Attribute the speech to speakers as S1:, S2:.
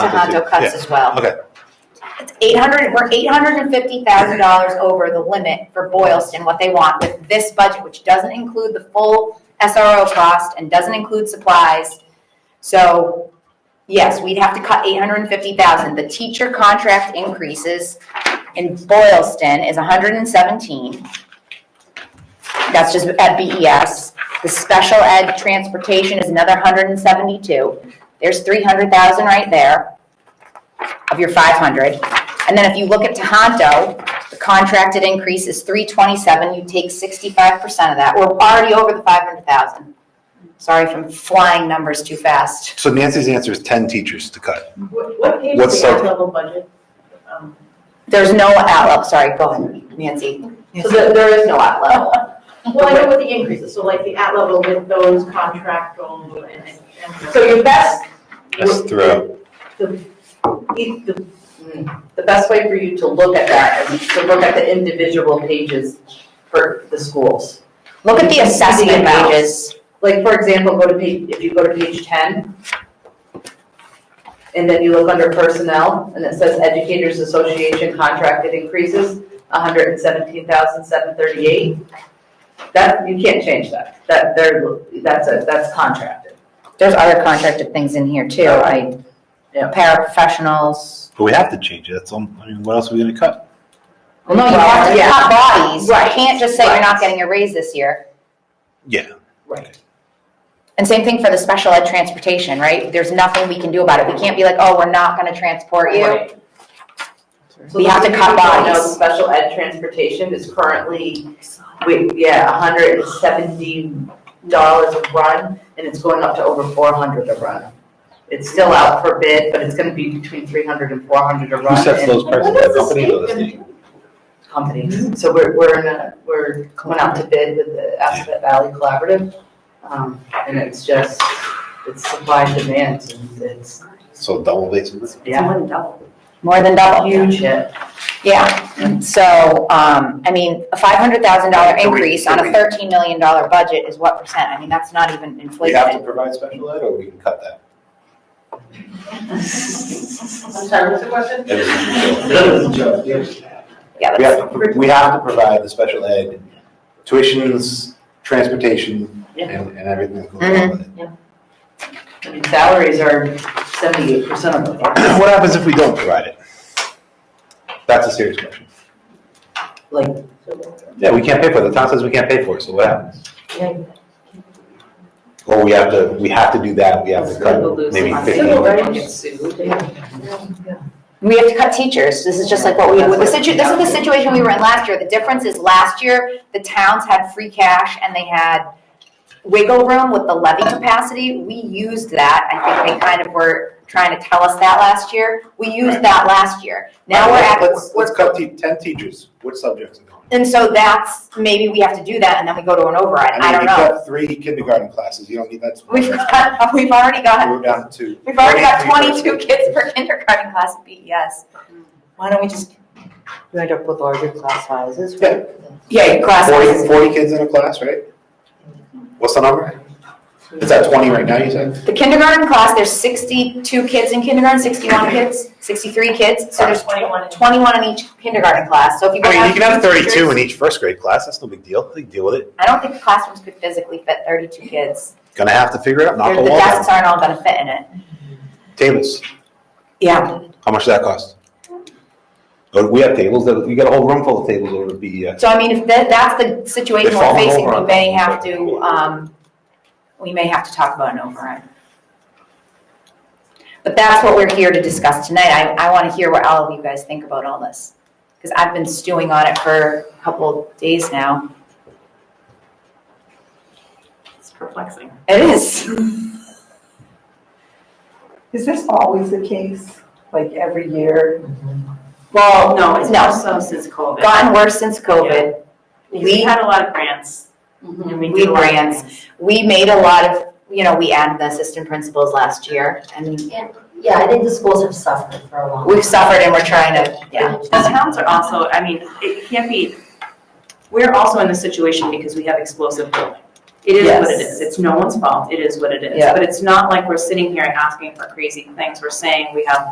S1: to Hondo Cuts
S2: Ah, Yeah.
S1: as well.
S2: Okay.
S1: It's eight hundred, we're eight hundred and fifty thousand dollars over the limit for Boylston, what they want with this budget, which doesn't include the full SRO cost and doesn't include supplies. So, yes, we'd have to cut eight hundred and fifty thousand. The teacher contract increases in Boylston is hundred and seventeen. That's just at BES. The special ed transportation is another hundred and seventy-two. There's three hundred thousand right there of your five hundred. And then if you look at Tohoto, the contracted increase is three twenty-seven, you take sixty-five percent of that. We're already over the five hundred thousand. Sorry if I'm flying numbers too fast.
S2: So Nancy's answer is ten teachers to cut.
S3: What, what page
S2: What's
S3: is the
S2: that?
S3: level budget? Um,
S1: There's no outlook, sorry, go ahead, Nancy. So there, there is no outlook.
S3: Well, I know what the increase is, so like the at level with those contractual and, and.
S4: So your best,
S2: That's throughout.
S4: the, the, the best way for you to look at that is to look at the individual pages for the schools.
S1: Look at the assessment
S4: amounts.
S1: pages.
S4: Like, for example, go to page, if you go to page ten, and then you look under personnel, and it says Educators Association contracted increases, hundred and seventeen thousand, seven thirty-eight. That, you can't change that, that, they're, that's a, that's contracted.
S1: There's other contracted things in here too, right?
S4: Yeah.
S1: Paraprofessionals.
S2: But we have to change it. That's, all- I mean, what else are we gonna cut?
S1: Well, no, you have to
S4: Yeah.
S1: cut bodies. You
S4: Right.
S1: can't just say you're not
S4: Right.
S1: getting a raise this year.
S2: Yeah.
S4: Right.
S1: And same thing for the special ed transportation, right? There's nothing we can do about it. We can't be like, oh, we're not gonna transport you.
S4: Right.
S1: We have to cut
S4: So
S1: bodies.
S4: the special ed transportation is currently, we, yeah, hundred and seventy dollars a run, and it's going up to over four hundred a run. It's still out for bid, but it's gonna be between three hundred and four hundred a
S2: Who
S4: run
S2: sets
S4: in
S2: those prices? The company or the state?
S4: companies. So we're, we're in a, we're going out to bid with the Asset Valley Collaborative. Um, and it's just, it's supply and demand, and it's,
S2: So double basically.
S4: yeah,
S1: More than double.
S4: huge hit.
S1: Yeah, so, um, I mean, a five hundred thousand dollar
S2: So we-
S1: increase
S2: so
S1: on a
S2: we-
S1: thirteen million dollar budget is what percent? I mean, that's not even
S2: We have to
S1: inflation.
S2: provide special ed or we can cut that?
S3: I'm sorry, what's the question?
S1: Yeah,
S2: We
S1: that's,
S2: have, to- we have to provide the special ed tuitions, transportation,
S4: Yeah. Mm-hmm.
S2: and, and everything that goes along with it.
S4: I mean, salaries are seventy-eight percent of the market.
S2: What happens if we don't provide it? That's a serious question.
S4: like,
S2: Yeah, we can't pay for it. The town says we can't pay for it, so what happens?
S4: Yeah.
S2: Or we have to, we have to do that, we have to cut
S4: We'll lose
S2: maybe
S4: some money.
S2: fifteen.
S3: Civil rights.
S4: Get sued.
S1: we have to cut teachers. This is just like what we, the situ, this is the situation we were in last year. The difference is last year, the towns had free cash and they had wiggle room with the levy capacity. We used that. I think they kind of were trying to tell us that last year. We used that last year. Now we're at,
S2: Let's,
S1: we're
S2: let's cut te- ten teachers, what subjects are going?
S1: And so that's, maybe we have to do that and then we go to an override, I
S2: mean,
S1: don't
S2: we
S1: know.
S2: cut Three kindergarten classes, you don't need that.
S1: We've got, we've already got,
S2: We're down to.
S1: we've already got
S2: 23
S1: twenty-two kids per kindergarten class E at BES. Why don't we just?
S5: You end up with larger class sizes.
S2: Yeah.
S1: Yeah, class
S2: Forty, forty kids in a class, right? What's the number? It's at twenty right now, you said?
S1: The kindergarten class, there's sixty-two kids in kindergarten, sixty-one kids, sixty-three kids, so there's
S3: Twenty-one.
S1: twenty-one in each kindergarten class, so if you go
S2: I mean,
S1: down
S2: you
S1: to
S2: can have thirty-two in
S1: teachers-
S2: each first grade class, that's no big deal, they can deal with it.
S1: I don't think the classrooms could physically fit thirty-two kids.
S2: Gonna have to figure it out, knock
S1: There's-
S2: a
S1: The
S2: wall down.
S1: desks aren't all gonna fit in it.
S2: Tables,
S1: Yeah.
S2: how much does that cost? Oh, We have tables, that- you got a whole room full of tables over at E BES.
S1: So I mean, if that, that's the situation
S2: They're
S1: we're
S2: falling
S1: facing,
S2: over
S1: we
S2: on
S1: may
S2: us.
S1: have to, um, we may have to talk about an override. But that's what we're here to discuss tonight. I, I want to hear what all of you guys think about all this. Because I've been stewing on it for a couple of days now.
S3: It's perplexing.
S1: It is.
S6: Is this always the case, like every year?
S4: Oh,
S1: Well,
S3: No, it's
S1: No.
S3: also since COVID.
S1: Gotten worse since COVID.
S3: Because we
S1: We,
S3: had a lot of grants.
S4: Mm-hmm.
S3: And we
S1: We
S3: did a lot of
S1: grants.
S3: things.
S1: we made a lot of, you know, we added the assistant principals last year and
S7: Yeah, I think the schools have suffered for a long
S1: we've suffered and we're trying to, yeah.
S3: The towns are also, I mean, it can't be, we're also in this situation because we have explosive building.
S4: It is what it
S1: Yes.
S4: is. It's no one's fault. It is what it is.
S1: Yeah.
S4: But it's not like we're sitting here and asking for crazy things. We're saying we have